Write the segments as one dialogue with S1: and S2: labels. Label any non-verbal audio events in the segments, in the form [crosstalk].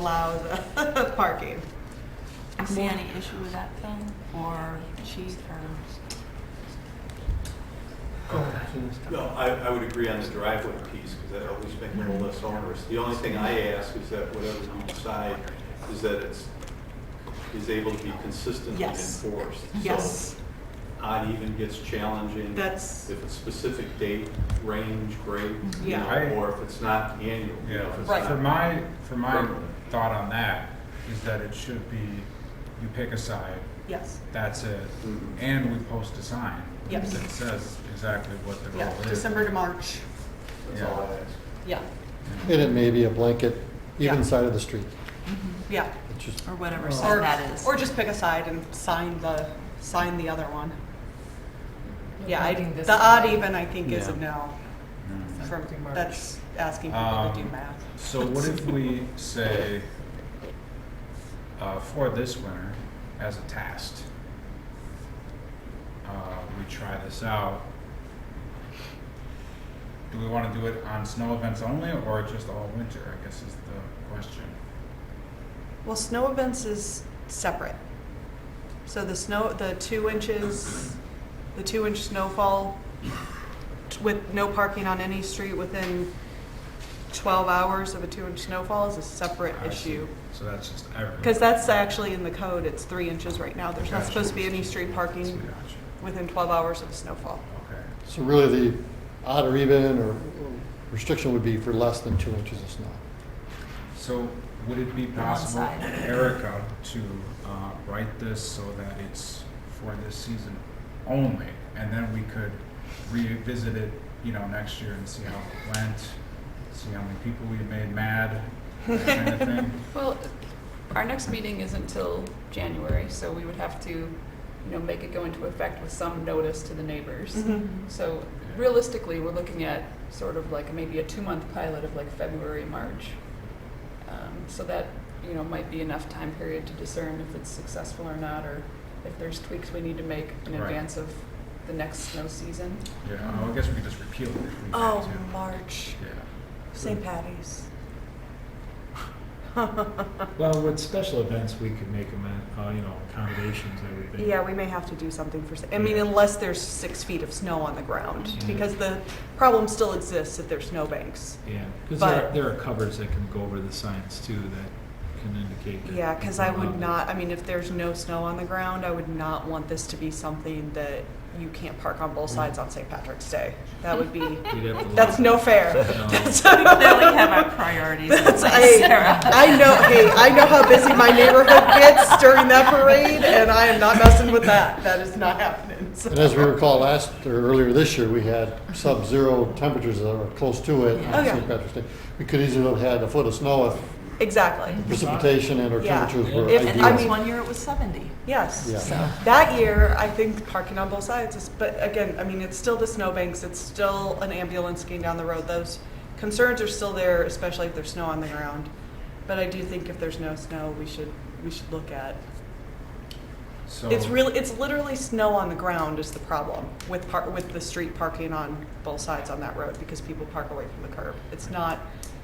S1: allow the uh, [laughs] parking.
S2: I see any issue with that, Phil, or chief, or?
S3: No, I, I would agree on the driveway piece, because that always makes it a little less onerous. The only thing I ask is that whatever we decide, is that it's, is able to be consistently
S1: Yes.
S3: enforced.
S1: Yes,
S3: So Odd even gets challenging.
S1: that's,
S3: If it's specific date, range, grade, you
S1: Yeah.
S3: know, or if it's not annual. you know, if it's
S1: Right.
S4: For
S3: not-
S4: my, for my
S3: Permanent.
S4: thought on that is that it should be, you pick a side,
S1: yes,
S4: that's it,
S3: Mhm.
S4: and we post a sign.
S1: Yes.
S4: That says exactly what the
S1: yeah,
S4: role is.
S1: December to March,
S3: That's all I ask.
S1: yeah,
S5: And it may be a blanket,
S1: Yeah.
S5: even side of the street.
S1: yeah.
S5: It's just,
S2: Or whatever
S1: Or-
S2: sign that is. [laughs]
S1: Or just pick a side and sign the, sign the other one. Yeah, I,
S6: Including this
S1: the
S6: one.
S1: odd even, I think, is a
S4: Yeah.
S1: no,
S4: Mm.
S1: from,
S6: Including March.
S1: that's asking people to do
S4: Um,
S1: math.
S4: So what if we say, uh, for this winter, as a test, uh, we try this out. Do we wanna do it on snow events only or just all winter, I guess is the question.
S1: Well, snow events is separate. So the snow, the two inches, the two inch snowfall t- with no parking on any street within twelve hours of a two inch snowfall is a separate
S4: I see.
S1: issue.
S4: So that's just everyone.
S1: Because that's actually in the code, it's three inches right now. There's not
S4: Gotcha.
S1: supposed to be any street parking
S4: Gotcha.
S1: within twelve hours of snowfall.
S4: Okay.
S5: so really the odd or even or restriction would be for less than two inches of snow.
S4: So would it be possible,
S2: side.
S4: Erica, to uh, write this so that it's for this season only? And then we could revisit it, you know, next year and see how it went, see how many people we made mad, that kind of thing.
S1: [laughs]
S7: Well, our next meeting is until January, so we would have to, you know, make it go into effect with some notice to the neighbors. So realistically, we're looking at sort of like maybe a two-month pilot of like February, March. Um, So that, you know, might be enough time period to discern if it's successful or not, or if there's tweaks we need to make in
S4: Right.
S7: advance of the next snow season.
S4: Yeah, well, I guess we could just repeal it if we had
S2: Oh,
S4: to.
S2: March,
S4: Yeah.
S2: St. Patty's.
S8: Well, with special events, we could make them, uh, you know, accommodations, I would think.
S1: Yeah, we may have to do something for, s- I mean,
S8: Yeah.
S1: unless there's six feet of snow on the ground,
S8: Mhm.
S1: because the problem still exists if there's snowbanks.
S8: Yeah, because
S1: But-
S8: there, are- there are covers that can go over the signs too that can indicate. that
S1: Yeah, because I
S8: people
S4: Uh-huh.
S1: would
S8: love it.
S1: not, I mean, if there's no snow on the ground, I would not want this to be something that you can't park on both sides on St. Patrick's Day. That would be, [laughs]
S8: We'd have to look
S1: that's
S8: at
S1: no
S8: it.
S1: fair. [laughs]
S8: No.
S2: Now we have our priorities in
S1: That's-
S2: place,
S1: I-
S2: Sarah.
S1: I know, hey, I know how busy my neighborhood gets during that parade, and I am not messing with that. That is not happening, so.
S5: And as we recall last, or earlier this year, we had sub-zero temperatures that were close to it
S1: Oh,
S5: on
S1: yeah.
S5: St. Patrick's Day. We could easily have had a foot of snow if
S1: Exactly,
S5: precipitation and our
S1: Yeah.
S5: temperatures were
S1: If-
S2: And that was
S5: ideal.
S2: one year it was seventy,
S1: yes.
S5: Yeah.
S2: so.
S1: That year, I think parking on both sides is, but again, I mean, it's still the snowbanks, it's still an ambulance getting down the road. Those concerns are still there, especially if there's snow on the ground. But I do think if there's no snow, we should, we should look at.
S4: So.
S1: It's really, it's literally snow on the ground is the problem with par, with the street parking on both sides on that road because people park away from the curb. It's not,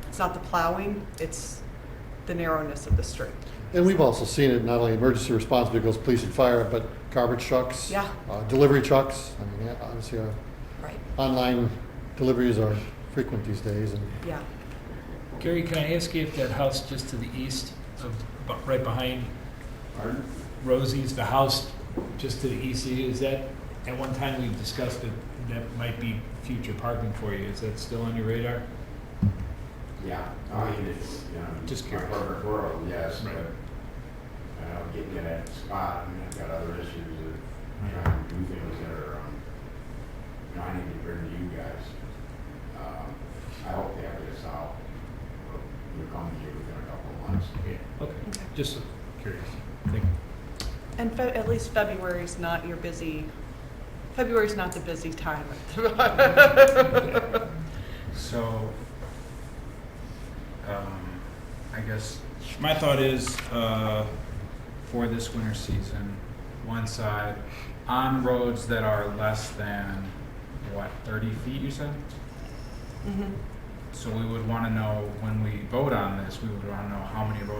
S1: it's not the plowing, it's the narrowness of the street.
S5: And we've also seen it, not only emergency response vehicles, police and fire, but garbage trucks.
S1: Yeah.
S5: uh, Delivery trucks. I mean, yeah, obviously our
S2: right.
S5: online deliveries are frequent these days and
S1: Yeah.
S8: Gary, can I ask you if that house just to the east of, bu- right behind Rosie's, the house just to the east, of you, is that, at one time we discussed that that might be future parking for you, is that still on your radar?
S9: Yeah, I mean, it's, you know,
S8: Just
S9: my
S8: curious.
S9: perfect world, yes,
S8: Right.
S9: but, uh, getting to that spot, I mean, I've got other issues of trying to do things that are, um, you know, I need to bring to you guys. Um, I hope they have this out, or you'll come to you within a couple of months.
S8: Yeah, okay, just curious. Thank you.
S1: And fe- at least February's not your busy, February's not the busy time. [laughs]
S4: So, um, I guess my thought is uh, for this winter season, one side on roads that are less than what thirty feet. You said. So we would want to know when we vote on this. We would want to know how many roads